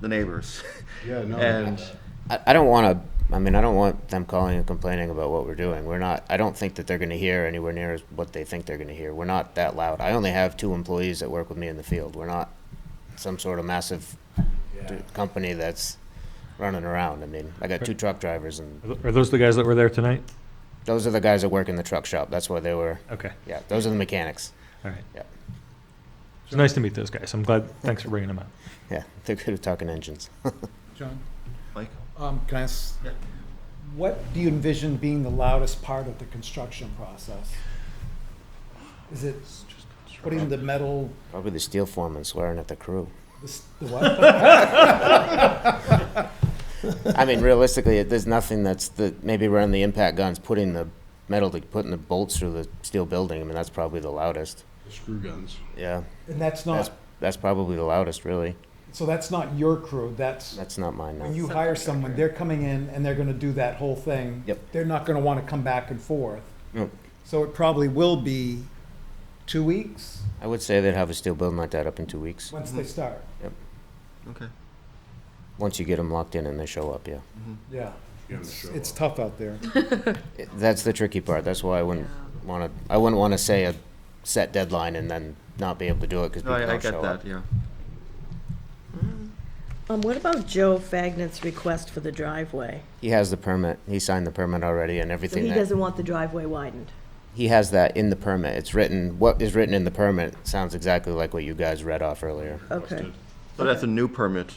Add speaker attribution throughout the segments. Speaker 1: the neighbors.
Speaker 2: Yeah, no,
Speaker 1: And,
Speaker 3: I, I don't want to. I mean, I don't want them calling and complaining about what we're doing. We're not. I don't think that they're going to hear anywhere near as what they think they're going to hear. We're not that loud. I only have two employees that work with me in the field. We're not some sort of massive d- company that's running around. I mean, I got two truck drivers, and
Speaker 4: Are th- Are those the guys that were there tonight?
Speaker 3: those are the guys that work in the truck shop. That's why they were.
Speaker 4: Okay,
Speaker 3: Yeah, those are the mechanics.
Speaker 4: all right.
Speaker 3: Yeah.
Speaker 4: It's nice to meet those guys. I'm glad, thanks for bringing them up.
Speaker 3: Yeah, they're good at talking engines.
Speaker 5: John?
Speaker 1: like,
Speaker 5: Um, can I ask?
Speaker 1: Yeah.
Speaker 5: What do you envision being the loudest part of the construction process? Is it putting the metal,
Speaker 3: Probably the steel foreman swearing at the crew.
Speaker 5: the s- the what?
Speaker 3: I mean, realistically, it- there's nothing that's the, maybe around the impact guns, putting the metal, to putting the bolts through the steel building, I mean, that's probably the loudest.
Speaker 2: Screw guns.
Speaker 3: Yeah,
Speaker 5: And that's
Speaker 3: that's,
Speaker 5: not,
Speaker 3: that's probably the loudest, really.
Speaker 5: so that's not your crew, that's,
Speaker 3: That's not mine,
Speaker 5: when
Speaker 3: no.
Speaker 5: you hire someone, they're coming in and they're gonna do that whole thing.
Speaker 3: Yep.
Speaker 5: They're not gonna wanna come back and forth.
Speaker 3: Nope.
Speaker 5: So it probably will be two weeks,
Speaker 3: I would say they'd have a steel building like that up in two weeks,
Speaker 5: once they
Speaker 1: Mhm.
Speaker 5: start,
Speaker 1: okay.
Speaker 3: once you get them locked in and they show up, yeah.
Speaker 1: Mm-hmm.
Speaker 5: yeah.
Speaker 2: You gotta
Speaker 5: It's
Speaker 2: show
Speaker 5: it's
Speaker 2: up.
Speaker 5: tough out there.
Speaker 3: It- That's the tricky part, that's why I wouldn't wanna, I wouldn't wanna say a set deadline and then not be able to do it, cause
Speaker 1: No,
Speaker 3: people
Speaker 1: I, I
Speaker 3: don't
Speaker 1: get
Speaker 3: show
Speaker 1: that,
Speaker 3: up.
Speaker 1: yeah.
Speaker 6: Um, what about Joe Fagnan's request for the driveway?
Speaker 3: He has the permit, he signed the permit already and
Speaker 6: So
Speaker 3: everything.
Speaker 6: he
Speaker 3: that-
Speaker 6: doesn't want the driveway widened.
Speaker 3: he has that in the permit. It's written, what is written in the permit sounds exactly like what you guys read off earlier.
Speaker 6: Okay.
Speaker 1: So that's a new permit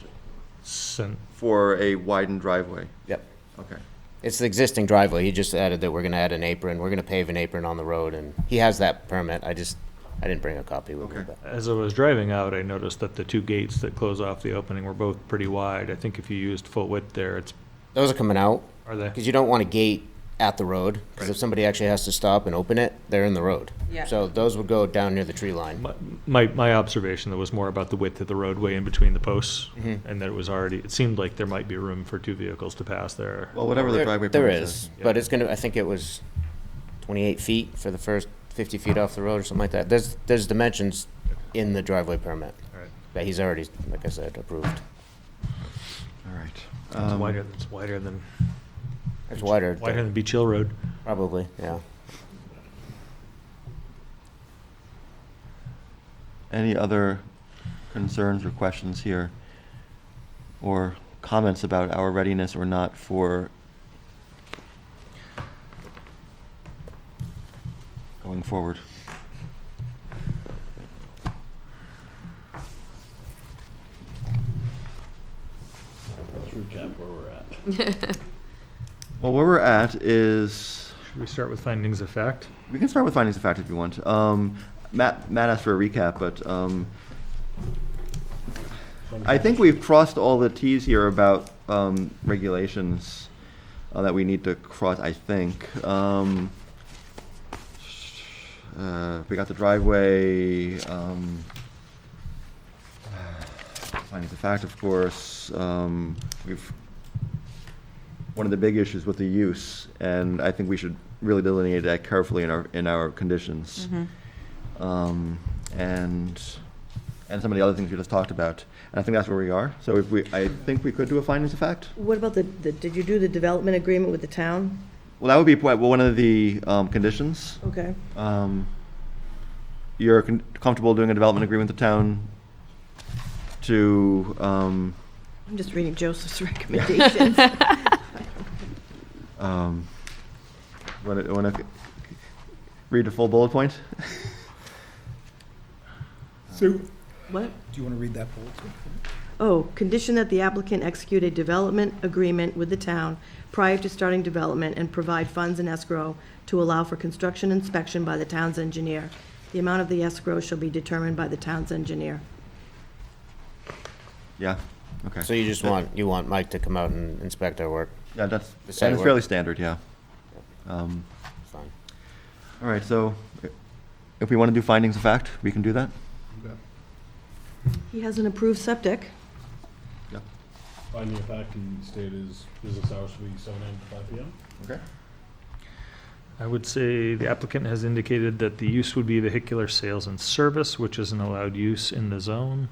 Speaker 4: Sen-
Speaker 1: for a widened driveway,
Speaker 3: Yep.
Speaker 1: okay.
Speaker 3: It's the existing driveway. He just added that we're gonna add an apron, we're gonna pave an apron on the road, and he has that permit. I just, I didn't bring a copy with me,
Speaker 1: Okay.
Speaker 3: but
Speaker 4: As I was driving out, I noticed that the two gates that close off the opening were both pretty wide. I think if you used full width there, it's,
Speaker 3: those are coming out,
Speaker 4: are they?
Speaker 3: because you don't want a gate at the road, because if somebody actually has to stop and open it, they're in the road.
Speaker 6: Yeah.
Speaker 3: So those would go down near the tree line.
Speaker 4: My- My, my observation though was more about the width of the roadway in between the posts,
Speaker 1: Mm-hmm.
Speaker 4: and that it was already, it seemed like there might be room for two vehicles to pass there.
Speaker 1: Well, whatever the
Speaker 3: There-
Speaker 1: driveway
Speaker 3: There
Speaker 1: permit
Speaker 3: is,
Speaker 1: says.
Speaker 3: but it's gonna, I think it was twenty-eight feet for the first fifty feet off the road or something like that. There's, there's dimensions in the driveway permit.
Speaker 4: All right.
Speaker 3: that he's already, like I said, approved.
Speaker 1: All right.
Speaker 4: It's
Speaker 1: Um,
Speaker 4: wider, it's wider than,
Speaker 3: It's wider,
Speaker 4: wider than Beach Hill Road.
Speaker 3: probably, yeah.
Speaker 1: Any other concerns or questions here? Or comments about our readiness or not for going forward?
Speaker 2: Let's recap where we're at.
Speaker 1: Well, where we're at is,
Speaker 4: Should we start with findings of fact?
Speaker 1: we can start with findings of fact if you want. Um, Matt, Matt asked for a recap, but, um, I think we've crossed all the Ts here about, um, regulations uh, that we need to cross, I think. Um, uh, we got the driveway, um, findings of fact, of course, um, we've one of the big issues with the use, and I think we should really delineate that carefully in our, in our conditions. Um, and, and some of the other things we just talked about. And I think that's where we are. So if we, I think we could do a findings of fact.
Speaker 6: What about the, the, did you do the development agreement with the town?
Speaker 1: Well, that would be quite- well, one of the, um, conditions.
Speaker 6: Okay.
Speaker 1: Um, you're con- comfortable doing a development agreement with the town to, um,
Speaker 6: I'm just reading Joseph's recommendations.
Speaker 1: um, wanna, wanna c- read the full bullet point?
Speaker 5: So, do
Speaker 6: What?
Speaker 5: you wanna read that bulletin?
Speaker 6: Oh, condition that the applicant execute a development agreement with the town prior to starting development and provide funds in escrow to allow for construction inspection by the town's engineer. The amount of the escrow shall be determined by the town's engineer.
Speaker 1: Yeah, okay.
Speaker 3: So you just want, you want Mike to come out and inspect our work,
Speaker 1: Yeah, that's,
Speaker 3: The site
Speaker 1: and it's
Speaker 3: work.
Speaker 1: fairly standard, yeah. Um,
Speaker 3: it's fine.
Speaker 1: All right, so i- if we want to do findings of fact, we can do that?
Speaker 6: He has an approved septic.
Speaker 1: Yeah.
Speaker 2: Finding of fact, he stated his business hours should be seven AM to five PM.
Speaker 1: Okay.
Speaker 4: I would say the applicant has indicated that the use would be vehicular sales and service, which is an allowed use in the zone.